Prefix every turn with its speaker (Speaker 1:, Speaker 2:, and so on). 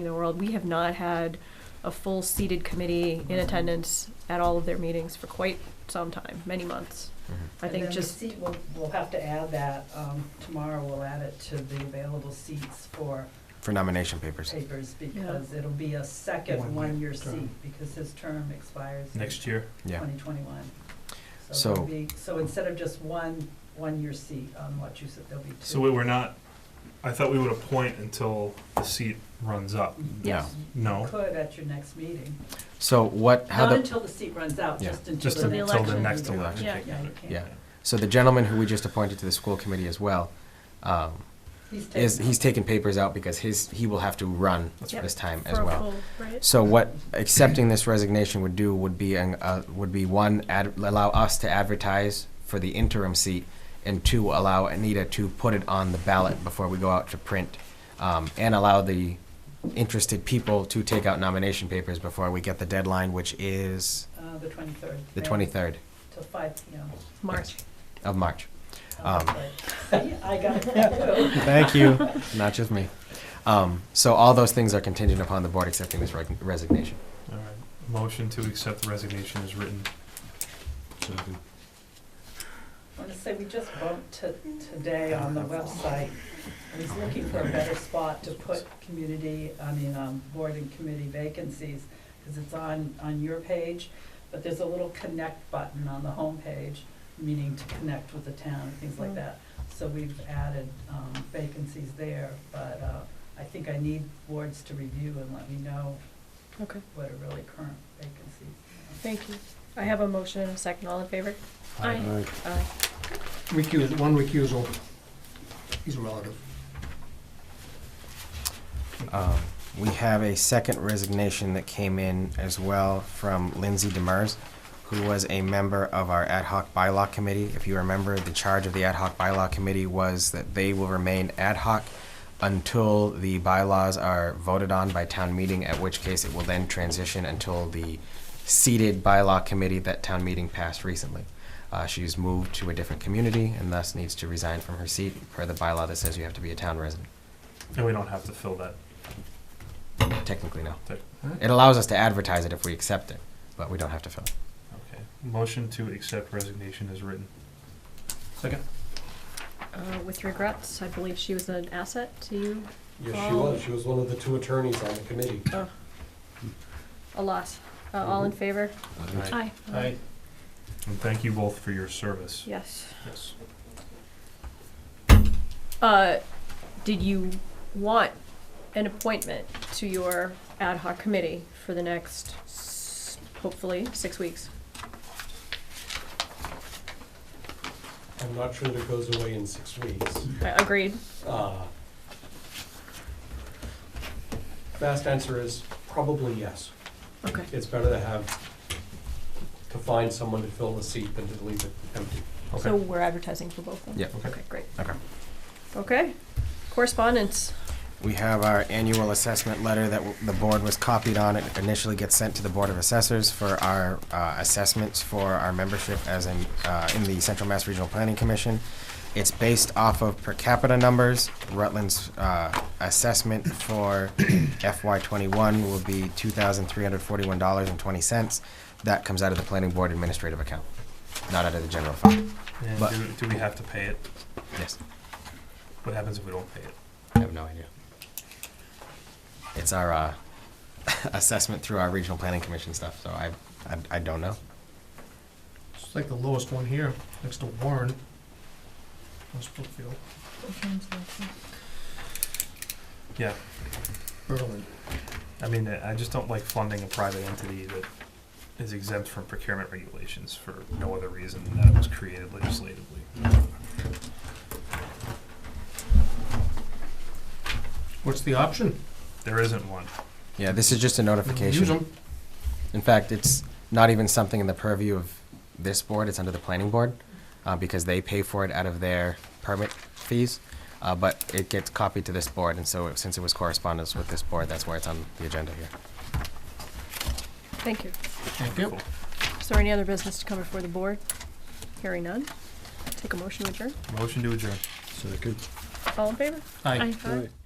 Speaker 1: in the world. We have not had a full seated committee in attendance at all of their meetings for quite some time, many months. I think
Speaker 2: And then the
Speaker 1: just,
Speaker 2: seat, we'll, we'll have to add that, um, tomorrow we'll add it to the available seats for
Speaker 3: for nomination papers.
Speaker 2: papers because it'll be a
Speaker 4: One-year
Speaker 2: second one-year
Speaker 4: term.
Speaker 2: seat because his term expires.
Speaker 5: next year.
Speaker 3: Yeah.
Speaker 2: Twenty twenty-one.
Speaker 3: So-
Speaker 2: So instead of just one, one-year seat on Wachusett, there'll be two.
Speaker 5: So we were not, I thought we would appoint until the seat runs up.
Speaker 3: Yeah.
Speaker 5: No,
Speaker 2: Mm-hmm. Could at your next meeting,
Speaker 3: So what, how
Speaker 2: not
Speaker 3: the,
Speaker 2: until the seat runs out,
Speaker 3: Yeah.
Speaker 2: just until
Speaker 5: just
Speaker 2: the next.
Speaker 5: until the
Speaker 1: election.
Speaker 5: next
Speaker 2: meeting.
Speaker 5: election.
Speaker 1: Yeah.
Speaker 5: I
Speaker 2: Yeah,
Speaker 5: got
Speaker 2: you
Speaker 5: it.
Speaker 2: can't.
Speaker 3: yeah. So the gentleman who we just appointed to the school committee as well, um,
Speaker 2: He's taking. uh,
Speaker 3: is, he's taking papers out because his, he will have to run
Speaker 5: That's
Speaker 3: this time as
Speaker 1: for a
Speaker 3: well.
Speaker 1: full, right?
Speaker 3: So what accepting this resignation would do would be, an- uh, would be one, ad- allow us to advertise for the interim seat, and two, allow Anita to put it on the ballot before we go out to print, um, and allow the interested people to take out nomination papers before we get the deadline, which is
Speaker 2: Uh, the twenty-third.
Speaker 3: the twenty-third
Speaker 2: Till five, you know.
Speaker 1: March.
Speaker 3: of March. Um,
Speaker 2: See, I got it.
Speaker 3: Thank you. Not just me. Um, so all those things are contingent upon the board accepting this reg- resignation.
Speaker 5: All right, motion to accept the resignation is written.
Speaker 2: I want to say, we just bumped to, today on the website, I was looking for a better spot to put community, I mean, um, board and committee vacancies, because it's on, on your page, but there's a little connect button on the homepage, meaning to connect with the town and things like that. So we've added, um, vacancies there, but, uh, I think I need boards to review and let me know
Speaker 1: Okay.
Speaker 2: what are really current vacancies.
Speaker 1: Thank you. I have a motion and a second. All in favor? Aye. Aye.
Speaker 4: Recuse, one recusal. He's a relative.
Speaker 3: Um, we have a second resignation that came in as well from Lindsay Demers, who was a member of our ad hoc bylaw committee. If you remember, the charge of the ad hoc bylaw committee was that they will remain ad hoc until the bylaws are voted on by town meeting, at which case it will then transition until the seated bylaw committee that town meeting passed recently. Uh, she's moved to a different community and thus needs to resign from her seat per the bylaw that says you have to be a town resident.
Speaker 5: And we don't have to fill that.
Speaker 3: Technically, no.
Speaker 5: Tec-
Speaker 3: It allows us to advertise it if we accept it, but we don't have to fill. it.
Speaker 5: Okay. Motion to accept resignation is written. Second.
Speaker 1: Uh, With regrets, I believe she was an asset to you,
Speaker 6: Yes, she was. She was one of the two attorneys on the committee.
Speaker 1: a loss. Uh, All
Speaker 6: Mm-hmm.
Speaker 1: in favor? Aye.
Speaker 4: Aye.
Speaker 5: And thank you both for your service.
Speaker 1: Yes.
Speaker 5: Yes.
Speaker 1: Uh, did you want an appointment to your ad hoc committee for the next, s- hopefully, six weeks?
Speaker 6: I'm not sure that it goes away in six weeks.
Speaker 1: Uh, Agreed?
Speaker 6: Uh, Fast answer is probably yes.
Speaker 1: Okay.
Speaker 6: It's better to have, to find someone to fill the seat than to leave it empty.
Speaker 1: So we're advertising for both then?
Speaker 3: Yeah.
Speaker 1: Okay, great.
Speaker 3: Okay.
Speaker 1: Okay. Correspondence.
Speaker 3: We have our annual assessment letter that w- the board was copied on. It initially gets sent to the Board of Assessors for our uh, assessments for our membership as in, uh, in the Central Mass Regional Planning Commission. It's based off of per capita numbers. Rutland's uh, assessment for FY twenty-one will be two thousand three hundred forty-one dollars and twenty cents. That comes out of the Planning Board Administrative Account, not out of the general fund.
Speaker 5: And
Speaker 3: But-
Speaker 5: do, do we have to pay it?
Speaker 3: Yes.
Speaker 5: What happens if we don't pay it?
Speaker 3: I have no idea. It's our uh, assessment through our regional planning commission stuff, so I, I, I don't know.
Speaker 4: It's like the lowest one here, next to Warren. West Brookfield,
Speaker 5: Yeah.
Speaker 4: Berlin.
Speaker 5: I mean, I just don't like funding a private entity that is exempt from procurement regulations for no other reason than that it was created legislatively.
Speaker 4: What's the option?
Speaker 5: There isn't one.
Speaker 3: Yeah, this is just a
Speaker 4: Use
Speaker 3: notification.
Speaker 4: them.
Speaker 3: In fact, it's not even something in the purview of this board, it's under the planning board, uh, because they pay for it out of their permit fees. Uh, but it gets copied to this board, and so since it was correspondence with this board, that's why it's on the agenda here.
Speaker 1: Thank you.
Speaker 4: Thank you.
Speaker 1: Is there any other business to come before the board? Hearing none. Take a motion to adjourn.
Speaker 5: Motion to adjourn.
Speaker 1: All in favor?
Speaker 4: Aye.
Speaker 1: Aye.